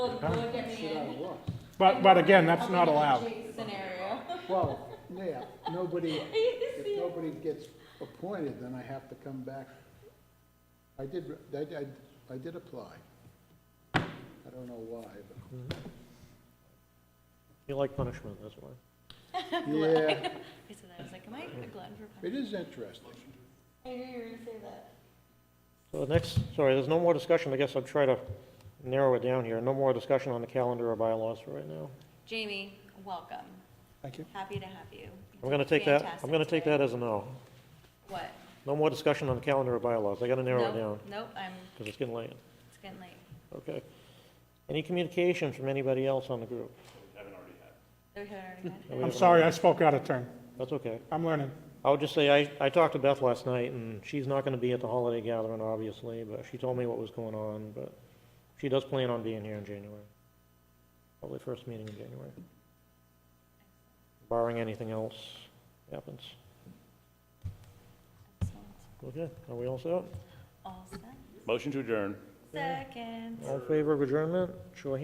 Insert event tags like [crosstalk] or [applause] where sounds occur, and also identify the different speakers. Speaker 1: Look, look at me in
Speaker 2: But, but again, that's
Speaker 1: a
Speaker 2: not allowed.
Speaker 1: Jake Scenario.
Speaker 3: Well, yeah, nobody, if
Speaker 1: It's
Speaker 3: nobody gets appointed, then I have to come back. I did, I, I, I did apply. I don't know why, but,
Speaker 4: You like punishment, that's why.
Speaker 3: yeah,
Speaker 5: I said that, I was like, am I a glutton for punishment?
Speaker 3: it is interesting.
Speaker 1: I knew you were gonna say that.
Speaker 4: So the next, sorry, there's no more discussion, I guess I'll try to narrow it down here. No more discussion on the calendar or bylaws for right now.
Speaker 5: Jamie, welcome.
Speaker 3: Thank you.
Speaker 5: Happy to have you.
Speaker 4: I'm gonna take that, I'm
Speaker 5: Fantastic
Speaker 4: gonna take
Speaker 5: today.
Speaker 4: that as a no.
Speaker 5: What?
Speaker 4: No more discussion on the calendar or bylaws, I gotta narrow
Speaker 5: Nope,
Speaker 4: it down,
Speaker 5: Nope, I'm,
Speaker 4: because it's getting late.
Speaker 5: it's getting late.
Speaker 4: Okay. Any communication from anybody else on the group?
Speaker 5: We haven't already had.
Speaker 4: That we
Speaker 2: I'm
Speaker 4: haven't-
Speaker 2: sorry, I spoke out of turn.
Speaker 4: That's okay.
Speaker 2: I'm learning.
Speaker 4: I'll just say, I, I talked to Beth last night, and she's not gonna be at the holiday gathering, obviously, but she told me what was going on, but she does plan on being here in January. Probably first meeting in January. Barring anything else happens. [laughs]
Speaker 5: Excellent.
Speaker 4: Okay, are we all set?
Speaker 5: All set.
Speaker 6: Motion to adjourn.
Speaker 5: Second.
Speaker 4: All in favor of adjournment? Show of hands.